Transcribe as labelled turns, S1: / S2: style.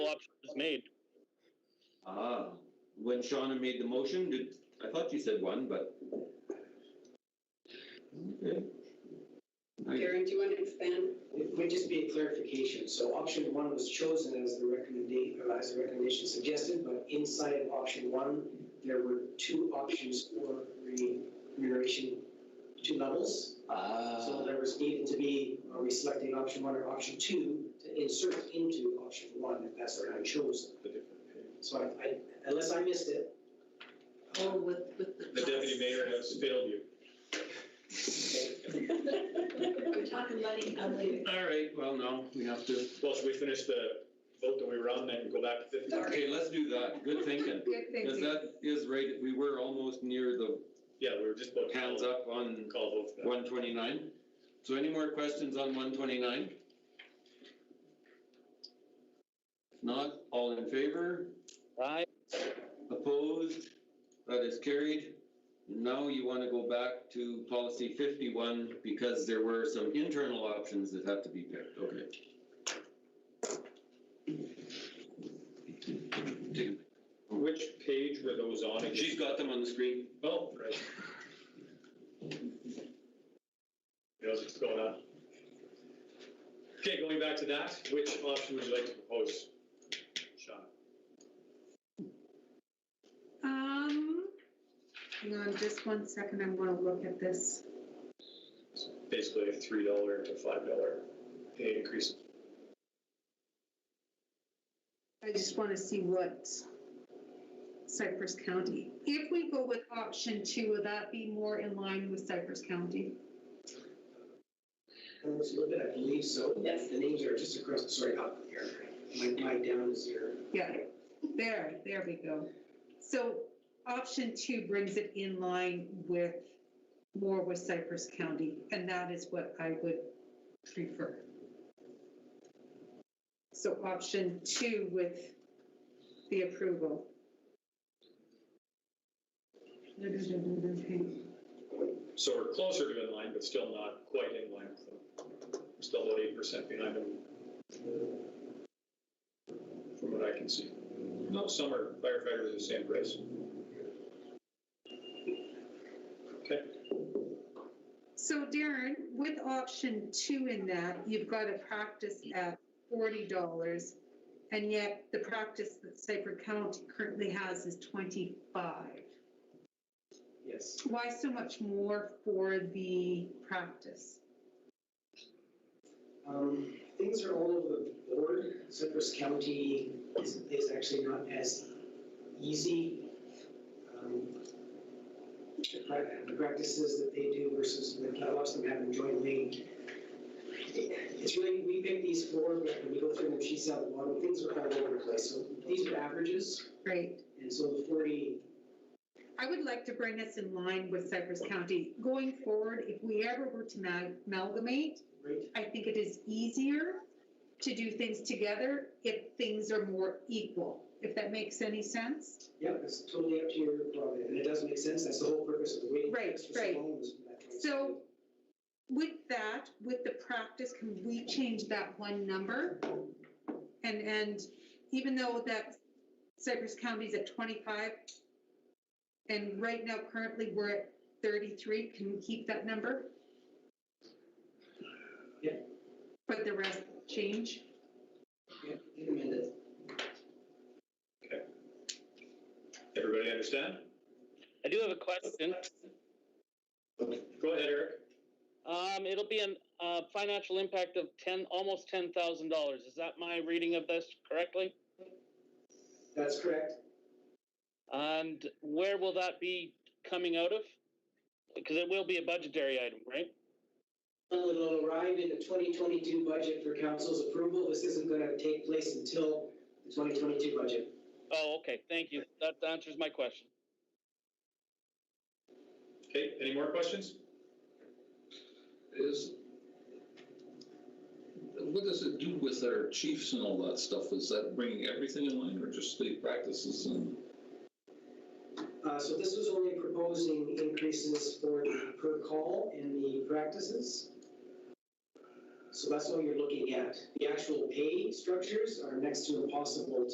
S1: was made.
S2: Ah, when Shauna made the motion, did, I thought you said one, but. Okay. I-
S3: Karen, do you want to expand?
S4: It would just be a clarification. So option one was chosen as the recommendation, as the recommendation suggested, but inside of option one, there were two options for remuneration, two levels.
S2: Ah,
S4: Uh, So there was needed to be, are we selecting option one or option two to insert into option one if that's what I chose? So I, I, unless I missed it,
S3: Oh, with, with the.
S5: The deputy mayor has failed you.
S3: We're talking letting go later.
S2: All right, well, no, we have to,
S5: Well, should we finish the vote that we were on, then go back to fifty?
S2: okay, let's do that, good thinking.
S6: Good
S2: Because
S6: thinking.
S2: that is right, we were almost near the
S5: Yeah, we were just about. to call-
S2: hands up on
S5: Call vote for that.
S2: one twenty-nine. So any more questions on one twenty-nine? Not, all in favor?
S1: Aye.
S2: Opposed? That is carried. Now you want to go back to policy fifty-one because there were some internal options that had to be picked, okay?
S5: Which page were those on? again?
S2: She's got them on the screen.
S5: Oh, right. He knows what's going on. Okay, going back to that, which option would you like to propose? Sean?
S6: Um, hang on just one second, I'm gonna look at this.
S5: Basically a three dollar to five dollar pay increase.
S6: I just wanna see what Cypress County. If we go with option two, would that be more in line with Cypress County?
S4: I was a little bit, I believe so.
S3: Yes.
S4: The names are just across, sorry, up here. My, my down is here.
S6: Yeah, there, there we go. So option two brings it in line with, more with Cypress County, and that is what I would prefer. So option two with the approval.
S5: So we're closer to in line, but still not quite in line. with them. We're Still about eight percent behind them. From what I can see. No, some are firefighters are the same price. Okay,
S6: So Darren, with option two in that, you've got a practice at forty dollars, and yet the practice that Cypress County currently has is twenty-five.
S4: Yes.
S6: Why so much more for the practice?
S4: Um, Things are all over the board. Cypress County is, is actually not as easy. um, The prac- the practices that they do versus the catalogs that happen jointly. It's really, we pick these four, but when we go through them, she's out of one, things are kind of all over the place. So these are averages,
S6: Right.
S4: and so the forty,
S6: I would like to bring us in line with Cypress County. Going forward, if we ever were to ma- amalgamate,
S4: right?
S6: I think it is easier to do things together if things are more equal, if that makes any sense.
S4: Yep, it's totally up to your prerogative, and it does make sense, that's the whole purpose of the waiting
S6: Right,
S4: list for so
S6: right.
S4: long was for that.
S6: So with that, with the practice, can we change that one number? And, and even though that Cypress County's at twenty-five, and right now currently we're at thirty-three, can we keep that number?
S4: Yeah.
S6: But the rest change?
S4: Yeah, in a minute.
S5: everybody understand?
S1: I do have a question.
S5: Go ahead, Eric.
S1: Um, it'll be an, uh, financial impact of ten, almost ten thousand dollars. Is that my reading of this correctly?
S4: That's correct.
S1: And where will that be coming out of? Because it will be a budgetary item, right?
S4: It'll arrive in the 2022 budget for council's approval. This isn't going to take place until the 2022 budget.
S1: Oh, okay, thank you. That answers my question.
S5: Okay, any more questions?
S7: is, what does it do with our chiefs and all that stuff? Is that bringing everything in line or just the practices and?
S4: Uh, So this was only proposing increases for the per call and the practices. So that's all you're looking at. The actual pay structures are next to impossible